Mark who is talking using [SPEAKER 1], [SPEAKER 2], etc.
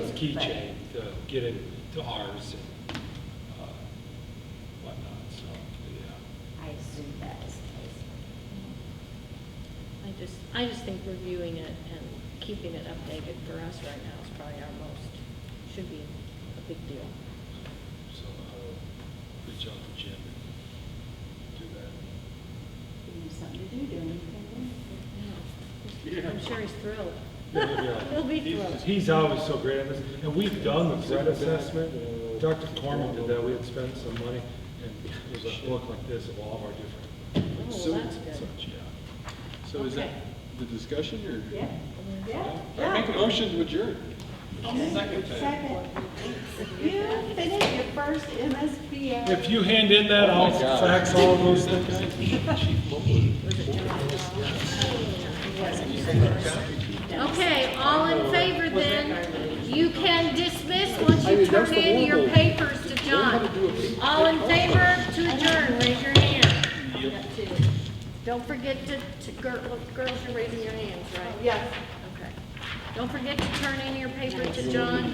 [SPEAKER 1] keychain to get it to ours and uh, whatnot, so, yeah.
[SPEAKER 2] I assume that is the
[SPEAKER 3] I just, I just think reviewing it and keeping it updated for us right now is probably our most, should be a big deal.
[SPEAKER 1] So I'll reach out to Jim and do that.
[SPEAKER 2] case. You have something to do during the
[SPEAKER 3] Yeah. I'm sure he's thrilled. He'll be
[SPEAKER 1] He's-
[SPEAKER 3] thrilled.
[SPEAKER 1] He's always so great at this, and we've done the threat assessment, Dr. Corman did that, we had spent some money, and it was a book like this of all of our different
[SPEAKER 3] Oh,
[SPEAKER 4] So-
[SPEAKER 3] well, that's good.
[SPEAKER 1] such, yeah.
[SPEAKER 4] So is that
[SPEAKER 3] Okay.
[SPEAKER 4] the discussion or?
[SPEAKER 2] Yeah, yeah.
[SPEAKER 4] I make a motion to adjourn.
[SPEAKER 2] Second. You finished your first MSBA.
[SPEAKER 1] If you hand in that, I'll fax all those things.
[SPEAKER 3] Okay, all in favor then, you can dismiss once you turn in your papers to John. All in favor to adjourn, raise your hand. Don't forget to, to, gir- look, girls, you're raising your hands, right?
[SPEAKER 2] Yes.
[SPEAKER 3] Okay. Don't forget to turn in your paper to John.